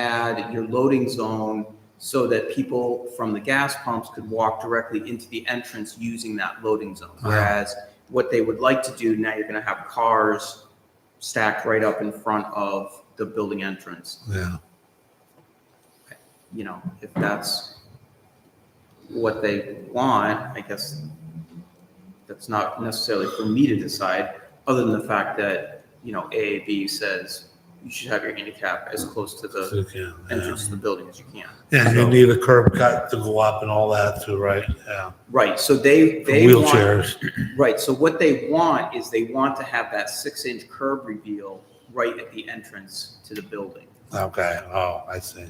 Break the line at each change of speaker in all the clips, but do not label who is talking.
had your loading zone so that people from the gas pumps could walk directly into the entrance using that loading zone.
Ah.
Whereas what they would like to do, now you're gonna have cars stacked right up in front of the building entrance,
Yeah,
you know, if that's what they want, I guess that's not necessarily for me to decide, other than the fact that, you know, AAB says you should have your handicap as close to
so
the
you can, yeah.
entrance to the building as you can.
Yeah, you
So-
need a curb cut to go up and all that too, right? Yeah,
Right, so they,
For
they want,
wheelchairs.
right, so what they want is they want to have that six-inch curb reveal right at the entrance to the building.
Okay, oh, I see.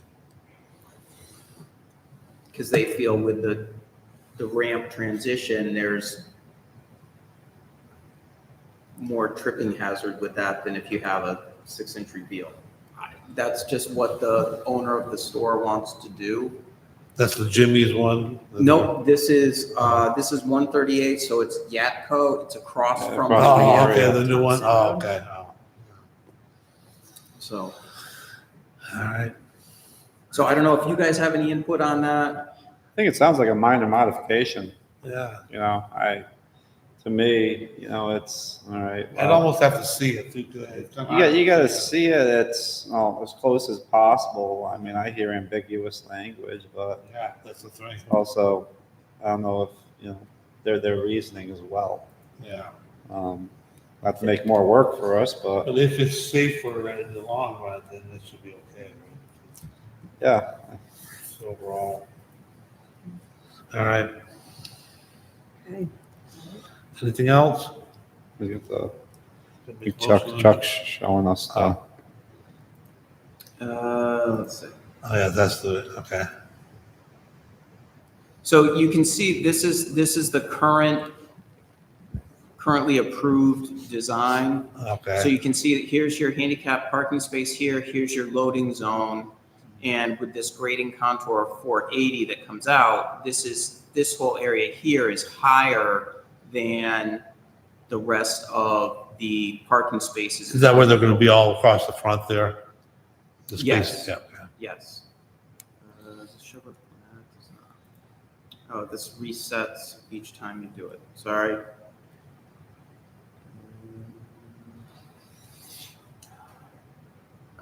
Because they feel with the, the ramp transition, there's more tripping hazard with that than if you have a six-inch reveal. I- That's just what the owner of the store wants to do.
That's the Jimmy's one? Oh,
No, this is, uh, this is one thirty-eight, so it's Yatco, it's across from.
Oh,
Across
okay, the new one. Oh, okay, oh,
So.
all right.
So I don't know if you guys have any input on that.
I think it sounds like a minor modification,
Yeah,
you know, I, to me, you know, it's, all right.
I'd
well,
almost have to see it. too, 'cause it's-
You got, you gotta see it, it's, well, as close as possible, I mean, I hear ambiguous language, but
Yeah, that's the thing,
Oh.
also, I don't know if, you know, their, their reasoning as well.
yeah.
Um, Not to make more work for us, but,
But if it's safer in the long run, then it should be okay. right?
yeah,
It's Overall. All right. Anything else?
we get the, big Chuck, Chuck showing us the,
Uh, let's see.
Oh, yeah, that's the, okay.
So you can see this is, this is the current, currently approved design. So
Okay,
you can see that here's your handicap parking space here, here's your loading zone. And with this grading contour of four eighty that comes out, this is, this whole area here is higher than the rest of the parking spaces.
is that where they're gonna be all across the front there? The
Yes.
space, yeah, okay.
Yes. Uh, does it show up? No, it does not. Oh, this resets each time you do it. Sorry. Um,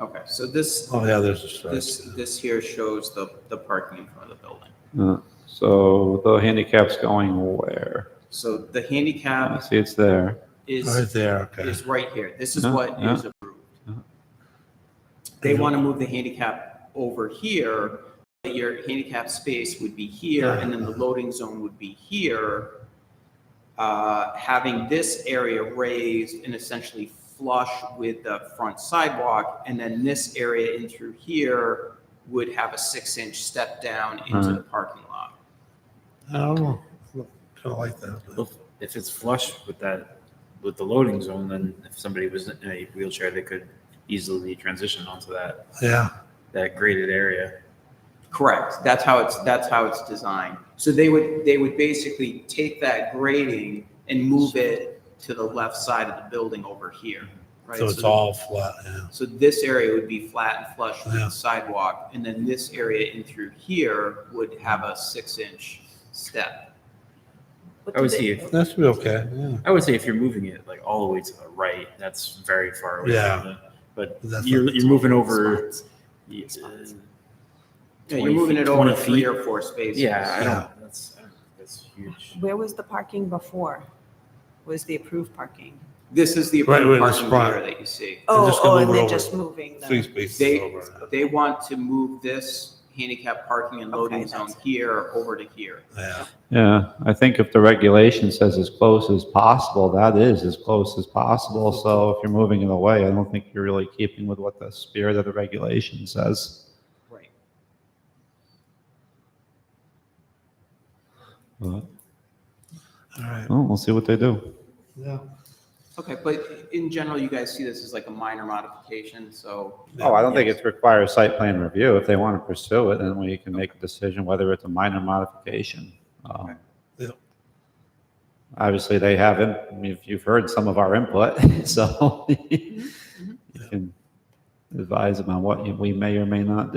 Okay, so this,
Oh, yeah, there's a
this,
stretch.
this here shows the, the parking in front of the building.
uh, so the handicap's going where?
So the
I
handicap
see it's there.
Right
is,
there, okay.
is right here. This is
Yeah,
what
yeah.
is approved. They want to move the handicap over here, but your handicap space would be here, and then the loading zone would be here. Uh, Having this area raised and essentially flush with the front sidewalk, and then this area in through here would have a six-inch step down into
Right.
the parking lot.
I don't know, kinda like that. but-
Well, If it's flush with that, with the loading zone, then if somebody was in a wheelchair, they could easily transition onto that,
Yeah,
that graded area.
Correct. That's how it's, that's how it's designed. So they would, they would basically take that grading and move it to the left side of the building over here, right?
so it's all flat, yeah.
So this area would be flat and flush with
Yeah.
the sidewalk, and then this area in through here would have a six-inch step.
I would say, if-
That should be okay, yeah.
I would say if you're moving it like all the way to the right, that's very far away.
Yeah.
from the- But
That's
you're,
not-
you're moving over. Yeah,
Yeah,
20
you're moving
feet-
it over
20
three
feet.
or four spaces.
Yeah, I
Yeah.
don't, that's, I don't think that's huge.
Where was the parking before? Was the approved parking?
This is the
Right, right in
approved
the
parking
front.
here that you see.
Oh,
just gonna
oh, and
move it
they're
over.
just moving
Three
the,
spaces
They-
over,
They want to move this handicap parking and loading
Okay,
zone
that's-
here over to here.
yeah.
Yeah, I think if the regulation says as close as possible, that is as close as possible. So if you're moving it away, I don't think you're really keeping with what the spirit of the regulation says.
Right.
But,
All right,
Well, we'll see what they do.
yeah.
Okay, but in general, you guys see this as like a minor modification, so,
Yeah.
Oh, I don't think it requires site plan review. If they want to pursue it, then we can make a decision whether it's a minor modification. Um,
Okay.
Yeah.
Obviously, they haven't, I mean, if you've heard some of our input, so you can advise them on what you- we may or may not do.